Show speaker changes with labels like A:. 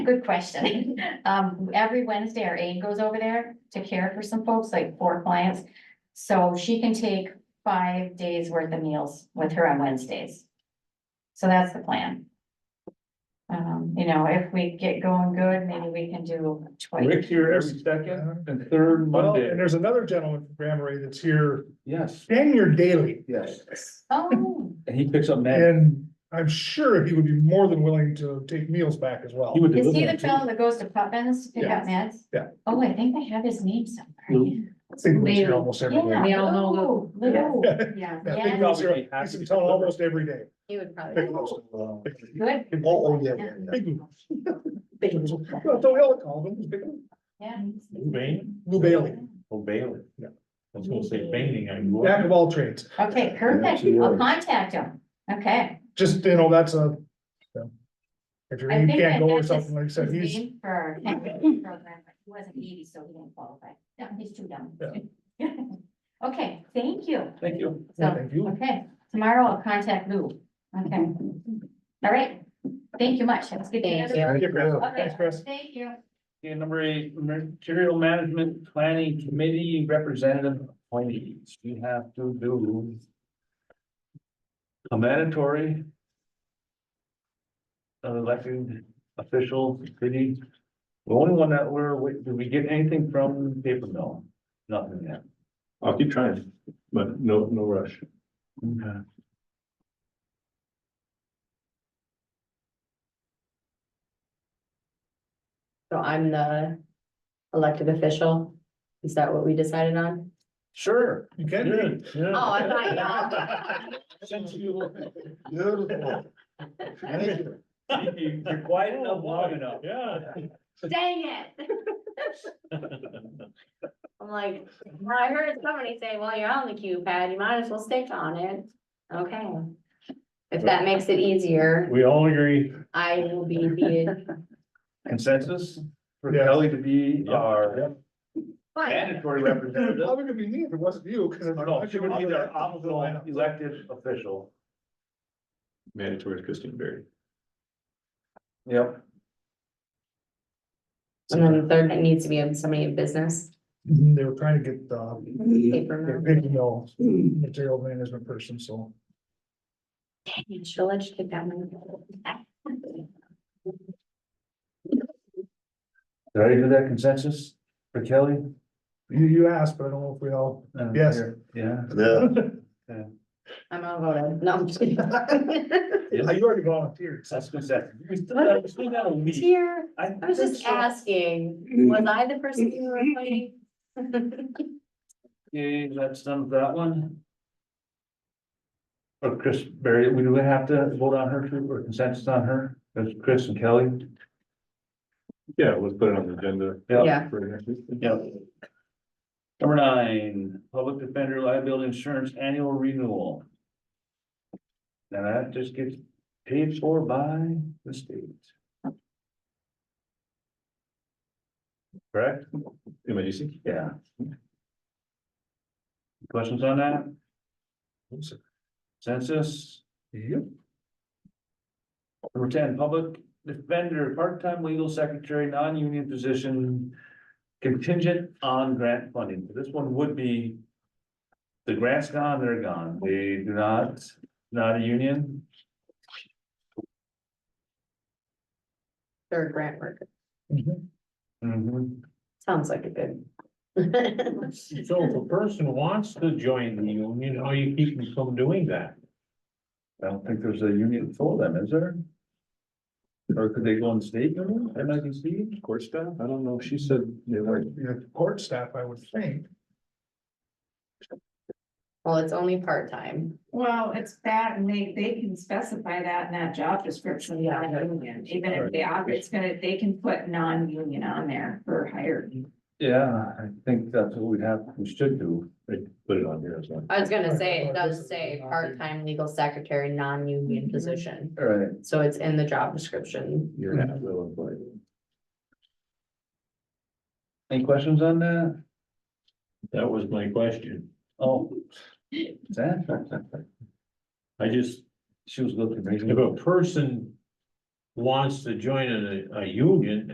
A: Good question. Um, every Wednesday, our aide goes over there to care for some folks, like four clients. So she can take five days worth of meals with her on Wednesdays. So that's the plan. Um, you know, if we get going good, maybe we can do
B: Rick's
A: twice.
B: here every second and third
C: Well,
B: Monday.
C: and there's another gentleman from Grand Marais that's here,
B: Yes,
C: dang near daily,
B: yes.
A: Oh,
B: And he picks up Matt.
C: and I'm sure he would be more than willing to take meals back as well.
B: He would
A: is he
B: deliver.
A: the
B: it, too.
A: fellow that goes to Putnam's to pick up meds?
C: Yeah.
A: Oh, I think I have his name somewhere.
B: Lou.
C: I think he lives here almost every
A: Yeah.
C: day.
D: We all know
A: Lou, Lou.
C: Yeah.
D: Yeah,
C: I think he lives here- he's in town almost every day.
D: he would probably.
C: Oh,
A: Good.
C: oh, yeah, yeah, yeah. Big Lou. Well, don't hell call him, he's Big Lou.
A: Yeah.
C: Lou Bailey,
E: Oh, Bailey.
C: Yeah.
E: I was gonna say Baining, I knew.
C: jack of all trades,
A: Okay, perfect. I'll contact him. Okay.
C: just, you know, that's a. yeah. If your
A: I
C: name
A: think I
C: can't go
A: had
C: or
A: his-
C: something like I said,
A: his
C: he's,
A: name For Henry program, but he wasn't eighty, so he didn't qualify. No, he's too young. Okay, thank you.
B: Thank you.
C: yeah,
A: So,
C: thank you.
A: okay, tomorrow I'll contact Lou. Okay. All right. Thank you much. Have a good day.
D: Thank
C: Thank
D: you.
C: you, Chris.
A: Okay,
C: Thanks, Chris.
A: Thank you.
B: Okay, number eight, material management planning committee representative appointees. We have to do a mandatory uh, elected official city. The only one that we're, wait- did we get anything from paper mill? Nothing yet.
E: I'll keep trying, but no, no rush.
B: Okay.
D: So I'm the elected official. Is that what we decided on?
B: Sure.
C: You can be.
D: Oh, I thought
B: Since you,
C: Beautiful. Thank you.
B: you- you're quiet enough, long enough.
E: Yeah.
D: you. Dang it. I'm like, well, I heard somebody say, well, you're on the queue pad, you might as well stick on it. Okay. If that makes it easier,
E: We all agree.
D: I will be the.
B: Consensus for
C: Yeah.
B: Kelly to be our
D: Fine.
B: mandatory
C: Probably
B: representative.
C: gonna be me if it wasn't you, cause. I'm-
B: No, no, she would be their optional elected official.
E: Mandatory is Christine Berry.
B: Yep.
D: And then the third, it needs to be somebody in business.
C: Mhm, They were trying to get um, the,
D: Paper
C: they're
D: mill.
C: picking all material management person, so.
D: Dang it, She'll let you take that one.
B: Did I do that consensus for Kelly?
C: You, you asked, but I don't know if we all,
B: Uh,
C: Yes.
B: Yeah.
D: I'm outvoted. No, I'm just kidding.
C: Uh, you already volunteered, so.
B: That's consensus. We still have, we still have a week.
D: Here, I was just asking, was I the person you were fighting?
B: Okay, that's done with that one. Or Chris Berry, we do have to vote on her too, or consensus on her, that's Chris and Kelly.
E: Yeah, let's put it on the agenda.
D: Yeah.
E: for next week.
B: Yep. Number nine, public defender liability insurance annual renewal. Now that just gets paid for by the state. Correct?
E: Am I using?
B: Yeah. Questions on that? Census? Yep. Number ten, public defender, part-time legal secretary, non-union position, contingent on grant funding. This one would be. The grant's gone, they're gone. They do not, not a union.
D: Or grant worker,
C: Mhm.
B: Mhm.
D: sounds like a good.
E: So if a person wants to join the union, how you keep them from doing that?
B: I don't think there's a union for them, is there? Or could they go on state union, MIDC?
E: Court staff? I don't know. She said they were.
C: You know, court staff, I would think.
D: Well, it's only part-time.
F: Well, it's that, and they, they can specify that in that job description,
D: Yeah.
F: non-union, even if they, opt- it's gonna, they can put non-union on there for hired.
B: Yeah, I think that's what we'd have, we should do.
E: They put it on here as well.
D: I was gonna say, it does say part-time legal secretary, non-union position,
B: All right.
D: so it's in the job description.
E: You're not will employed.
B: Any questions on that?
E: That was my question.
B: Oh. is that-
E: I just,
B: She was looking.
E: if a person
B: wants to join a, a union